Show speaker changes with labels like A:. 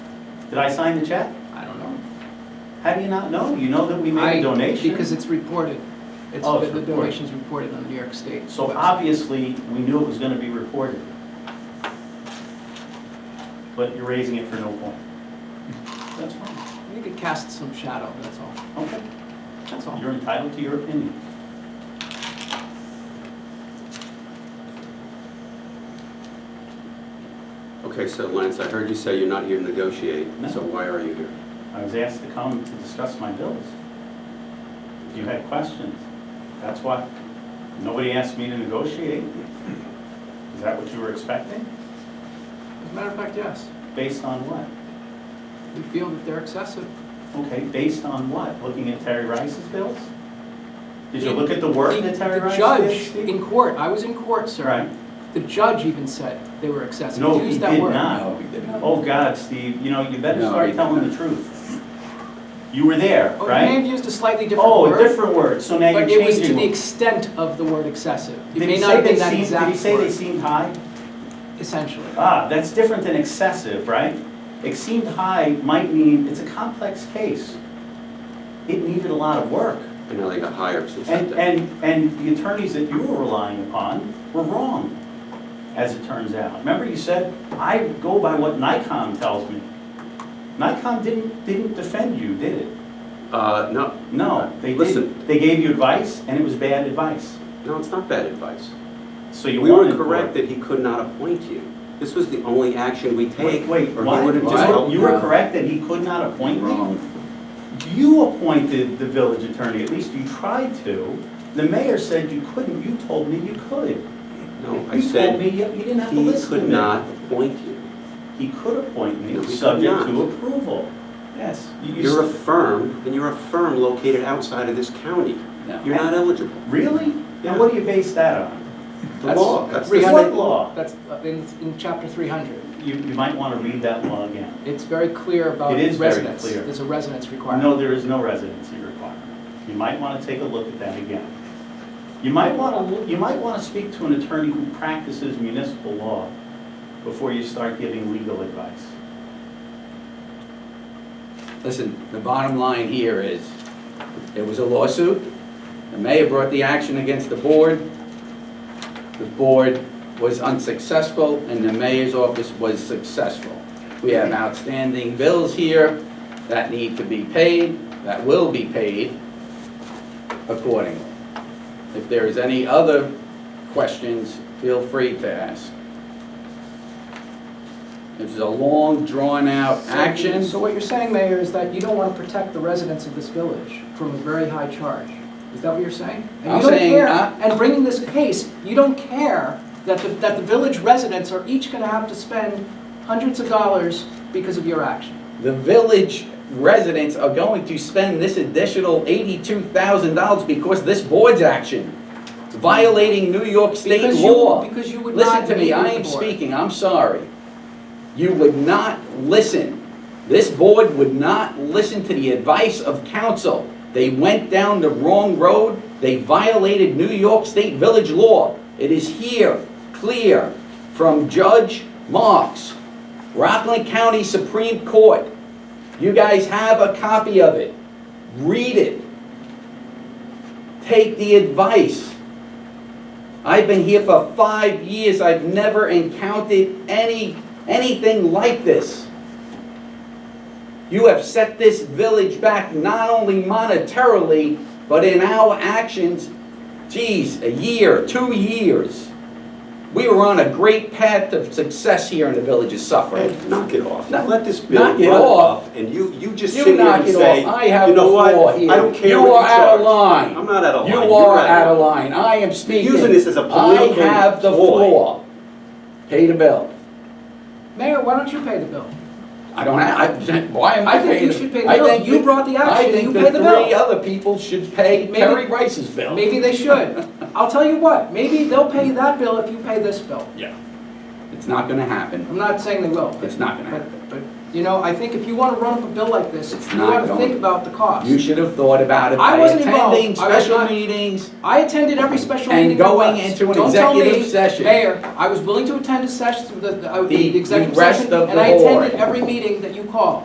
A: Did I sign the check?
B: I don't know.
A: How do you not know? You know that we made
B: I-
A: a donation?
B: Because it's reported. It's,
A: Oh, it's
B: the
A: reported.
B: donation's reported on the New York State.
A: So
B: website.
A: obviously, we knew it was gonna be reported. But you're raising it for no point. That's fine,
B: I think it casts some shadow, that's all.
A: okay.
B: That's all.
A: You're entitled to your opinion.
C: Okay, so Lance, I heard you say you're not here to negotiate,
A: No.
C: so why are you here?
A: I was asked to come to discuss my bills. If you had questions, that's why. Nobody asked me to negotiate. Is that what you were expecting?
B: As a matter of fact, yes.
A: Based on what?
B: We feel that they're excessive.
A: Okay, based on what? Looking at Terry Rice's bills? Did you look at the work that Terry
B: The
A: Rice did?
B: judge
A: Steve?
B: in court, I was in court, sir.
A: Right.
B: The judge even said they were excessive.
A: No,
B: He
A: he
B: used
A: did
B: that word.
A: not.
D: No, we didn't.
A: Oh, God, Steve, you know, you better
C: No,
A: start
C: he-
A: telling the truth. You were there,
B: Oh, he may
A: right?
B: have used a slightly different
A: Oh, a
B: word,
A: different word, so now you're
B: but it was to
A: changing.
B: the
A: it.
B: extent of the word excessive. It
A: Did
B: may
A: he
B: not
A: say
B: have
A: they
B: been that
A: seemed, did he
B: exact
A: say they
B: word,
A: seemed high?
B: essentially.
A: Ah, that's different than excessive, right? It seemed high might mean, it's a complex case. It needed a lot of work.
C: I know they got hired since that
A: And,
C: day.
A: and, and the attorneys that you were relying upon were wrong, as it turns out. Remember you said, I go by what Nikon tells me. Nikon didn't, didn't defend you, did it?
C: Uh, no,
A: No, they
C: Listen.
A: didn't. They gave you advice, and it was bad advice.
C: no, it's not bad advice.
A: So you
C: We were
A: wanted for it.
C: correct that he could not appoint you. This was the only action we take.
A: Wait, wait,
C: or he
A: what?
C: would've just
A: You were-
C: helped
A: You were
C: out.
A: correct that he could not appoint me?
D: Wrong.
A: You appointed the village attorney, at least you tried to. The mayor said you couldn't, you told me you could.
C: No, I
A: You told
C: said
A: me you you didn't have to
C: he
A: listen to
C: could
A: me.
C: not appoint you.
A: He could appoint
C: No,
A: me,
C: he could
A: subject
C: not.
A: to approval. Yes. you- you
C: You're a
A: s-
C: firm, and you're a firm located outside of this county.
D: No.
C: You're not eligible.
A: Really?
C: Yeah.
A: And what do you base that on?
C: The law, that's the
B: Three
C: state
A: What
B: hundred-
A: law?
B: That's uh, in, in chapter three hundred.
A: You, you might want to read that law again.
B: It's very clear about
A: It is
B: residence.
A: very clear.
B: There's a residence requirement.
A: No, there is no residency requirement. You might want to take a look at that again. You might want to, you might want to speak to an attorney who practices municipal law before you start giving legal advice.
D: Listen, the bottom line here is, there was a lawsuit, the mayor brought the action against the board, the board was unsuccessful, and the mayor's office was successful. We have outstanding bills here that need to be paid, that will be paid accordingly. If there is any other questions, feel free to ask. It was a long, drawn-out action.
B: So what you're saying, Mayor, is that you don't want to protect the residents of this village from a very high charge? Is that what you're saying? And
D: I'm
B: you don't
D: saying,
B: care-
D: uh,
B: And bringing this case, you don't care that the, that the village residents are each going to have to spend hundreds of dollars because of your action?
D: The village residents are going to spend this additional eighty-two thousand dollars because this board's action violating New York state
B: Because you-
D: law.
B: Because you would not.
D: Listen to
B: meet
D: me,
B: with
D: I
B: the
D: am
B: board.
D: speaking, I'm sorry. You would not listen. This board would not listen to the advice of council. They went down the wrong road, they violated New York State Village law. It is here, clear, from Judge Marks, Rockland County Supreme Court. You guys have a copy of it. Read it. Take the advice. I've been here for five years, I've never encountered any, anything like this. You have set this village back not only monetarily, but in our actions, geez, a year, two years. We were on a great path of success here in the village of Suffolk.
C: Hey, knock it off.
D: No,
C: Let this bill
D: knock
C: run
D: it off.
C: off, and you, you just
D: You
C: sit here
D: knock
C: and
D: it
C: say,
D: off. I have
C: you know
D: the
C: what?
D: floor here.
C: I don't care
D: You
C: what you
D: are out of
C: charge."
D: line.
C: I'm not out of line.
D: You
C: You're
D: are out of line, I am speaking.
C: using this as a political
D: I have the
C: ploy.
D: floor. Pay the bill.
B: Mayor, why don't you pay the bill?
D: I don't have, I, why am I
B: I think
D: paying?
B: you
D: it?
B: should pay the
D: I
B: bill.
D: think
B: You
D: the-
B: brought the action, you pay the
D: I think the three
B: bill.
D: other people should pay
B: Maybe-
D: Terry Rice's bill.
B: Maybe they should. I'll tell you what, maybe they'll pay that bill if you pay this bill.
D: Yeah. It's not gonna happen.
B: I'm not saying they will. but-
D: It's not gonna
B: But,
D: happen.
B: but, you know, I think if you want to run up a bill like this,
D: It's
B: you
D: not
B: want to
D: going-
B: think about the cost.
D: You should have thought about it
B: I
D: by
B: wasn't involved.
D: attending
B: I was
D: special
B: not-
D: meetings.
B: I attended every special
D: And
B: meeting there
D: going
B: was.
D: into an
B: Don't tell me,
D: executive session.
B: Mayor, I was willing to attend a session, the, the- uh,
D: The-
B: the executive
D: the rest
B: session,
D: of
B: and
D: the
B: I
D: board.
B: attended every meeting that you called.